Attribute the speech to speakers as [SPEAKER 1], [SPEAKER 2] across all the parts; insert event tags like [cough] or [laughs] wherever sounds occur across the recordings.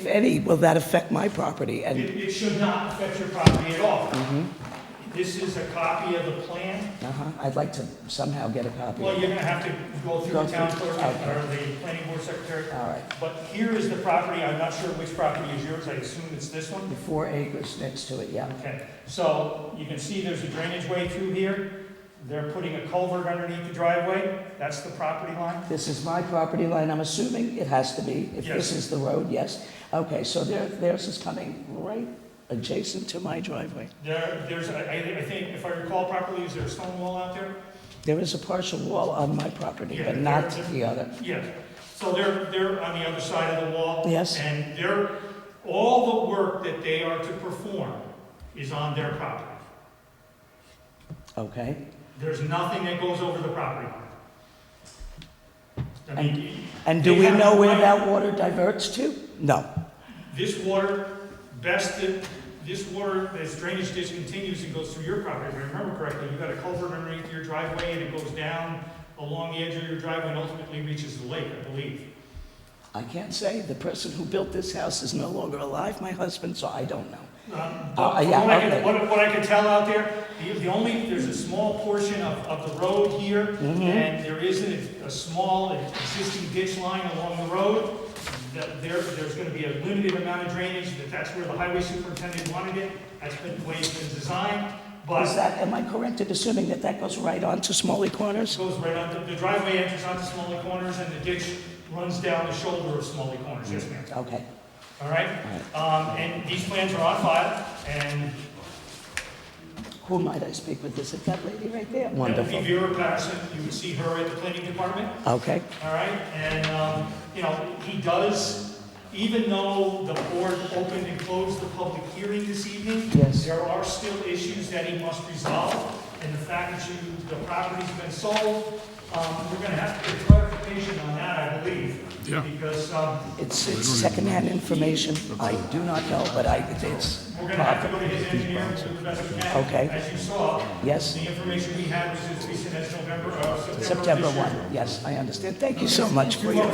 [SPEAKER 1] If any, will that affect my property?
[SPEAKER 2] It,
[SPEAKER 1] And,
[SPEAKER 2] it should not affect your property at all. This is a copy of the plan.
[SPEAKER 1] uh-huh, I'd like to somehow get a copy.
[SPEAKER 2] Well,
[SPEAKER 1] All
[SPEAKER 2] you're gonna have to go through
[SPEAKER 1] Go
[SPEAKER 2] the town
[SPEAKER 1] through,
[SPEAKER 2] clerk
[SPEAKER 1] okay.
[SPEAKER 2] or the planning board secretary.
[SPEAKER 1] right,
[SPEAKER 2] But here is the property. I'm not sure which property is yours. I assume it's this one.
[SPEAKER 1] the four acres next to it, yeah.
[SPEAKER 2] Okay, so you can see there's a drainage way through here. They're putting a culvert underneath the driveway. That's the property line.
[SPEAKER 1] This is my property line, I'm assuming it has to be, if this
[SPEAKER 2] Yes.
[SPEAKER 1] is the road, yes. Okay, so there, theirs is coming right adjacent to my driveway.
[SPEAKER 2] There, there's, I, I I think, if I recall properly, is there a stone wall out there?
[SPEAKER 1] There is a partial wall on my property, but
[SPEAKER 2] Yeah,
[SPEAKER 1] not
[SPEAKER 2] there-
[SPEAKER 1] the other.
[SPEAKER 2] Yes, so they're, they're on the other side of the wall.
[SPEAKER 1] Yes.
[SPEAKER 2] And they're, all the work that they are to perform is on their property.
[SPEAKER 1] Okay,
[SPEAKER 2] There's nothing that goes over the property line. I mean,
[SPEAKER 1] and do
[SPEAKER 2] They
[SPEAKER 1] we
[SPEAKER 2] have
[SPEAKER 1] know
[SPEAKER 2] the
[SPEAKER 1] where
[SPEAKER 2] right-
[SPEAKER 1] that water diverts to? No.
[SPEAKER 2] this water, best, that- this water, this drainage ditch continues and goes through your property. If I remember correctly, you've got a culvert underneath your driveway and it goes down along the edge of your driveway and ultimately reaches the lake, I believe.
[SPEAKER 1] I can't say, the person who built this house is no longer alive, my husband, so I don't know.
[SPEAKER 2] Um,
[SPEAKER 1] Uh,
[SPEAKER 2] But from
[SPEAKER 1] yeah,
[SPEAKER 2] what I
[SPEAKER 1] okay.
[SPEAKER 2] can, what, what I can tell out there, the, the only, there's a small portion of, of the road here,
[SPEAKER 1] Mm-hmm.
[SPEAKER 2] and there is a, a small existing ditch line along the road. That There, there's gonna be a limited amount of drainage, that that's where the highway superintendent wanted it, that's been the way it's been designed, but
[SPEAKER 1] Is that, am I correct in assuming that that goes right on to Smalley
[SPEAKER 2] it
[SPEAKER 1] Corners?
[SPEAKER 2] goes right on, the driveway enters onto Smalley Corners, and the ditch runs down the shoulder of Smalley Corners, yes ma'am,
[SPEAKER 1] Okay,
[SPEAKER 2] all right? Um, and these plans are on file, and
[SPEAKER 1] who might I speak with? Is it that lady right there?
[SPEAKER 2] That would be
[SPEAKER 1] Wonderful.
[SPEAKER 2] Vera Patterson, you would see her at the planning department,
[SPEAKER 1] Okay,
[SPEAKER 2] all right? And, um, you know, he does, even though the board opened and closed the public hearing this evening,
[SPEAKER 1] Yes.
[SPEAKER 2] there are still issues that he must resolve, and the fact that you, the property's been sold, um, we're gonna have to get clarification on that, I believe.
[SPEAKER 3] Yeah.
[SPEAKER 2] Because, um,
[SPEAKER 1] it's, it's secondhand information. I do not know, but I, it's,
[SPEAKER 2] we're gonna have to go to his engineer and do the best we can.
[SPEAKER 1] Okay.
[SPEAKER 2] As you saw,
[SPEAKER 1] yes,
[SPEAKER 2] the information we had was as recent as November, uh, September of this
[SPEAKER 1] September
[SPEAKER 2] year.
[SPEAKER 1] 1. Yes, I understand. Thank you so much for your...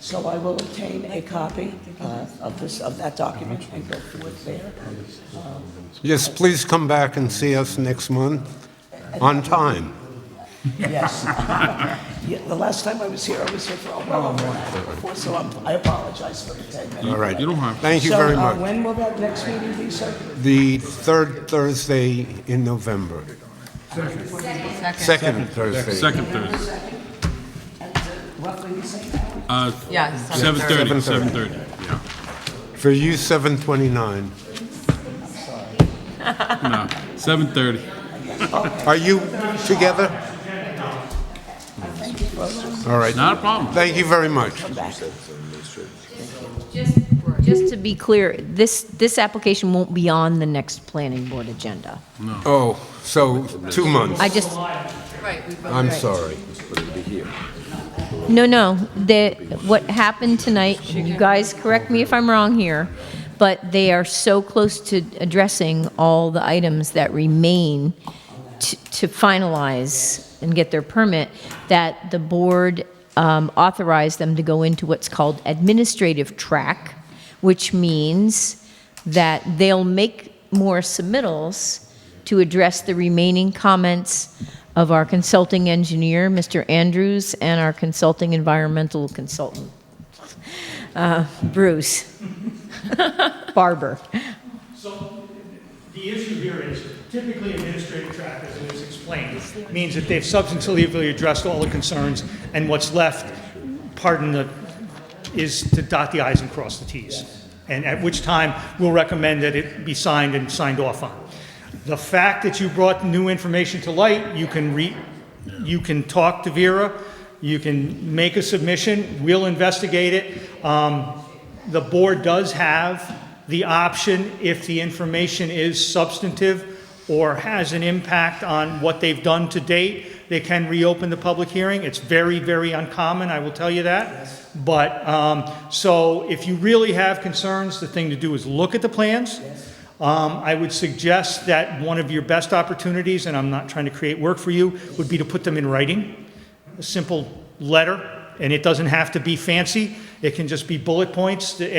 [SPEAKER 1] So I will obtain a copy uh, of this, of that document and go through it there.
[SPEAKER 4] Yes, please come back and see us next month on time.
[SPEAKER 1] Yes. [laughs] Yeah, The last time I was here, I was here for well over an hour before, so I'm- I apologize for the 10 minutes.
[SPEAKER 4] All right.
[SPEAKER 3] You don't have to.
[SPEAKER 4] Thank you very
[SPEAKER 1] So uh,
[SPEAKER 4] much.
[SPEAKER 1] when will that next meeting be, sir?
[SPEAKER 4] The third Thursday in November. Second Thursday.
[SPEAKER 3] Second Thursday.
[SPEAKER 1] Roughly the same hour?
[SPEAKER 3] Uh,
[SPEAKER 5] Yeah, so-
[SPEAKER 3] 7:30,
[SPEAKER 4] 7:30.
[SPEAKER 3] 7:30, yeah.
[SPEAKER 4] For you, 7:29.
[SPEAKER 3] No, 7:30.
[SPEAKER 4] Are you together? All right.
[SPEAKER 3] Not a problem.
[SPEAKER 4] Thank you very much.
[SPEAKER 6] Just just to be clear, this, this application won't be on the next planning board agenda.
[SPEAKER 4] Oh, so two months.
[SPEAKER 6] I just,
[SPEAKER 5] right, we voted.
[SPEAKER 4] I'm sorry.
[SPEAKER 6] no, no, the, what happened tonight, you guys correct me if I'm wrong here, but they are so close to addressing all the items that remain to to finalize and get their permit, that the board um, authorized them to go into what's called administrative track, which means that they'll make more submittals to address the remaining comments of our consulting engineer, Mr. Andrews, and our consulting environmental consultant, uh, Bruce [laughs] Barber.
[SPEAKER 2] So the issue here is typically administrative track, as it was explained, means that they've substantively addressed all the concerns, and what's left, pardon the, is to dot the i's and cross the t's. And at which time, we'll recommend that it be signed and signed off on. The fact that you brought new information to light, you can re, you can talk to Vera, you can make a submission, we'll investigate it. Um, The board does have the option, if the information is substantive or has an impact on what they've done to date, they can reopen the public hearing. It's very, very uncommon, I will tell you that. But, um, so if you really have concerns, the thing to do is look at the plans. Um, I would suggest that one of your best opportunities, and I'm not trying to create work for you, would be to put them in writing, a simple letter, and it doesn't have to be fancy.
[SPEAKER 7] It can just be bullet points, that